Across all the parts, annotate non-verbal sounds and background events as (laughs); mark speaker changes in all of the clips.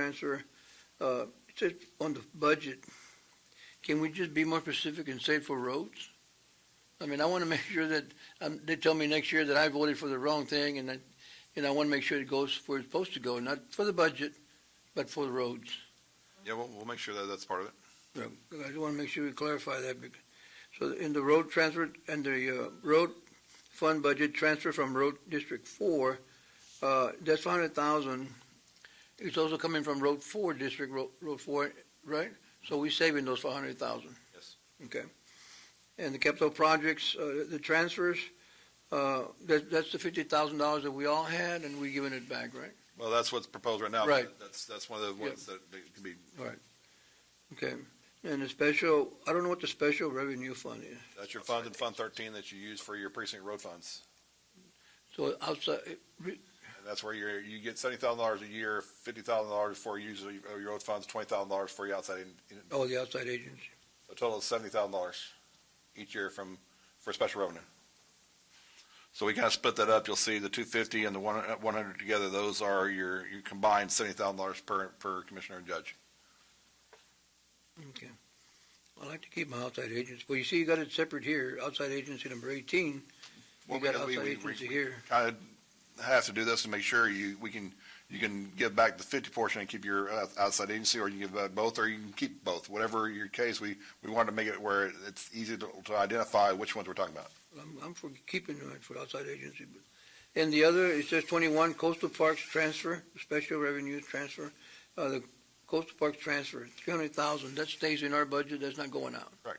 Speaker 1: transfer, uh, it says on the budget, can we just be more specific and say for roads? I mean, I want to (laughs) make sure that, um, they tell me next year that I voted for the wrong thing and that, and I want to make sure it goes where it's supposed to go, not for the budget, but for the roads.
Speaker 2: Yeah, we'll, we'll make sure that that's part of it.
Speaker 1: Yeah, I just want to make sure we clarify that. bec- So in the road transfer, and the uh, road fund budget transfer from road District Four, uh, that's five hundred thousand. It's also coming from Road Four District, Road, Road Four, right? So we saving those five hundred thousand?
Speaker 2: Yes.
Speaker 1: Okay. And the capital projects, uh, the transfers, uh, that, that's the fifty thousand dollars that we all had, and we giving it back, right?
Speaker 2: Well, that's what's proposed right now. but
Speaker 1: Right.
Speaker 2: That's, that's one of the ones that that can be,
Speaker 1: Okay. And the special, I don't know what the special revenue fund is.
Speaker 2: that's your fund in Fund thirteen that you use for your precinct road funds.
Speaker 1: So outside,
Speaker 2: And that's where you're, you get seventy thousand dollars a year, fifty thousand dollars for use of your- of your road funds, twenty thousand dollars for your outside, in- in-
Speaker 1: Oh, the outside agency.
Speaker 2: a total of seventy thousand dollars each year from, for special revenue. So we kind of split that up. You'll see the two fifty and the one, uh, one hundred together, those are your, your combined seventy thousand dollars per, per commissioner and judge.
Speaker 1: Okay. I like to keep my outside agents. Well, you see, you got it separate here, outside agency number eighteen. You got
Speaker 2: Well, we-
Speaker 1: outside
Speaker 2: we- we-
Speaker 1: agency here.
Speaker 2: kind of have to do this to make sure you, we can, you can give back the fifty portion and keep your uh, outside agency, or you give back both, or you can keep both. Whatever your case, we, we wanted to make it where it's easy to, to identify which ones we're talking about.
Speaker 1: I'm, I'm for keeping it for outside agency, but. And the other, it says twenty-one coastal parks transfer, special revenue transfer, uh, the coastal parks transfer, three hundred thousand, that stays in our budget, that's not going out.
Speaker 3: Uh,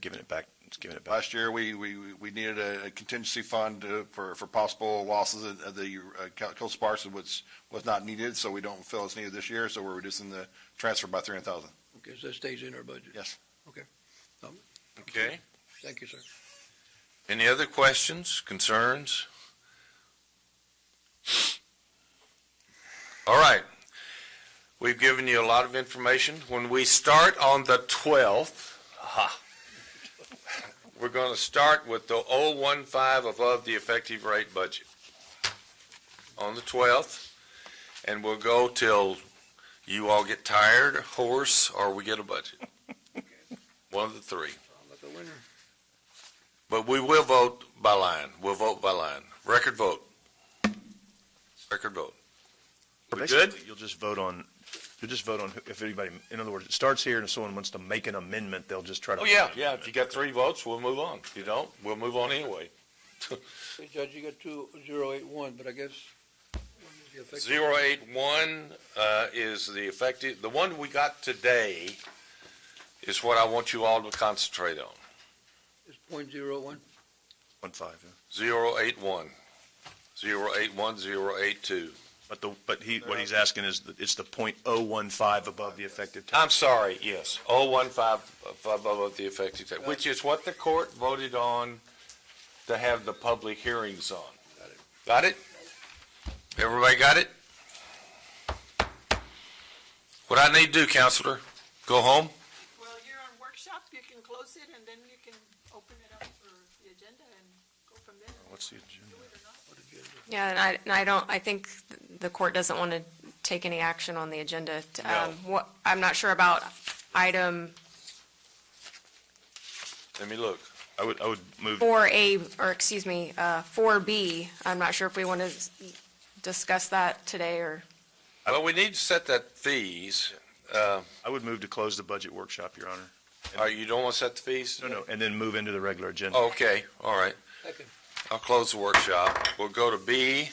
Speaker 3: Giving it back, it's giving it back.
Speaker 2: Last year, we, we, we needed a contingency fund uh, for, for possible losses of the uh, co- coastal parks, which was not needed, so we don't feel it's needed this year, so we're reducing the transfer by three hundred thousand.
Speaker 1: Okay, so that stays in our budget.
Speaker 2: Yes.
Speaker 3: Okay.
Speaker 1: Thank you, sir.
Speaker 3: Any other questions, concerns? All right. We've given you a lot of information. When we start on the 12th, aha, we're going to start with the 015 above the effective rate budget on the 12th, and we'll go till you all get tired, hoarse, or we get a budget. One of the three.
Speaker 1: I'm like a winner.
Speaker 3: But we will vote by line. We'll vote by line. Record vote. Record vote.
Speaker 4: But
Speaker 3: We
Speaker 4: basically, You'll just vote on, you'll just vote on who- if anybody, in other words, it starts here and if someone wants to make an amendment, they'll just try to.
Speaker 3: Oh, yeah, yeah. If you got three votes, we'll move on. If you don't, we'll move on anyway.
Speaker 1: Hey, Judge, you got two, zero, eight, one, but I guess. when is the effective-
Speaker 3: Zero eight one, uh, is the effective, the one we got today is what I want you all to concentrate on.
Speaker 1: It's point zero one,
Speaker 4: One five, yeah.
Speaker 3: Zero eight one. Zero eight one, zero eight two.
Speaker 4: But the, but he, what he's asking is, that it's the point oh one five above the effective tax.
Speaker 3: I'm sorry, yes, oh one five, above the effective date, which is what the court voted on to have the public hearings on. Got it? Everybody got it? What I need to do, counselor, go home?
Speaker 5: Well, you're on workshop, you can close it, and then you can open it up for the agenda and go from there.
Speaker 4: What's the agenda?
Speaker 5: Do it or not.
Speaker 6: Yeah, and I, and I don't, I think the court doesn't want to take any action on the agenda.
Speaker 3: No.
Speaker 6: Um, What, I'm not sure about item
Speaker 3: Let me look.
Speaker 4: I would, I would move,
Speaker 6: four A, or excuse me, uh, four B. I'm not sure if we want to discuss that today or,
Speaker 3: Well, we need to set that fees, uh,
Speaker 4: I would move to close the budget workshop, Your Honor.
Speaker 3: or you don't want to set the fees?
Speaker 4: No, no, and then move into the regular agenda.
Speaker 3: Okay, all right.
Speaker 1: second,
Speaker 3: I'll close the workshop. We'll go to B,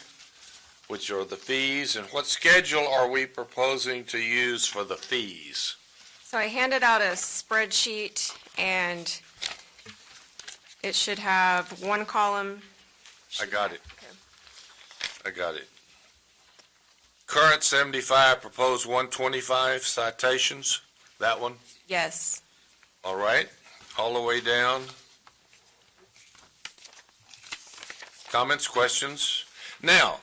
Speaker 3: which are the fees, and what schedule are we proposing to use for the fees?
Speaker 6: so I handed out a spreadsheet and it should have one column.
Speaker 3: I got it. I got it. Current seventy-five, proposed one twenty-five citations, that one,
Speaker 6: Yes,
Speaker 3: all right, all the way down. Comments, questions? Now,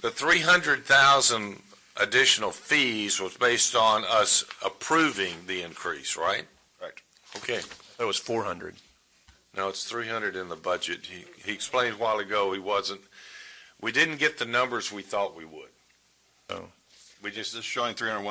Speaker 3: the three hundred thousand additional fees was based on us approving the increase, right?
Speaker 2: Correct.
Speaker 3: Okay.
Speaker 4: That was four hundred.
Speaker 3: No, it's three hundred in the budget. He, he explained a while ago he wasn't, we didn't get the numbers we thought we would.
Speaker 4: Oh.
Speaker 3: We just
Speaker 2: Just showing three hundred one